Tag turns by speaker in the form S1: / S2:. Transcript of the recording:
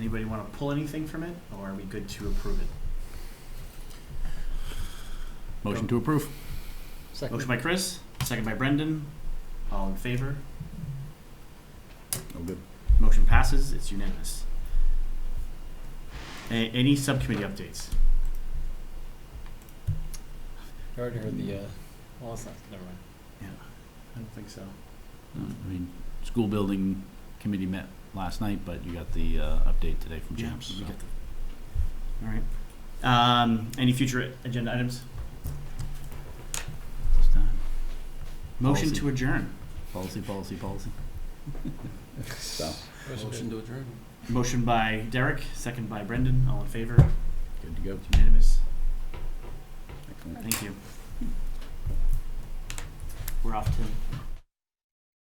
S1: Anybody want to pull anything from it, or are we good to approve it?
S2: Motion to approve.
S1: Motion by Chris, second by Brendan. All in favor?
S2: Oh, good.
S1: Motion passes. It's unanimous. A- any subcommittee updates?
S3: I already heard the, uh, well, it's not, never mind.
S1: I don't think so.
S2: Uh, I mean, school building committee met last night, but you got the uh, update today from
S1: Yeah,
S2: James.
S1: we
S2: so.
S1: got the- All right. Um, any future agenda items?
S2: It's time.
S1: Motion to
S2: Policy.
S1: adjourn.
S2: Policy, policy, policy. So,
S3: Motion to adjourn.
S1: Motion by Derek, second by Brendan. All in favor?
S2: good to go.
S1: It's unanimous.
S2: Excellent.
S1: Thank you. We're off, Tim.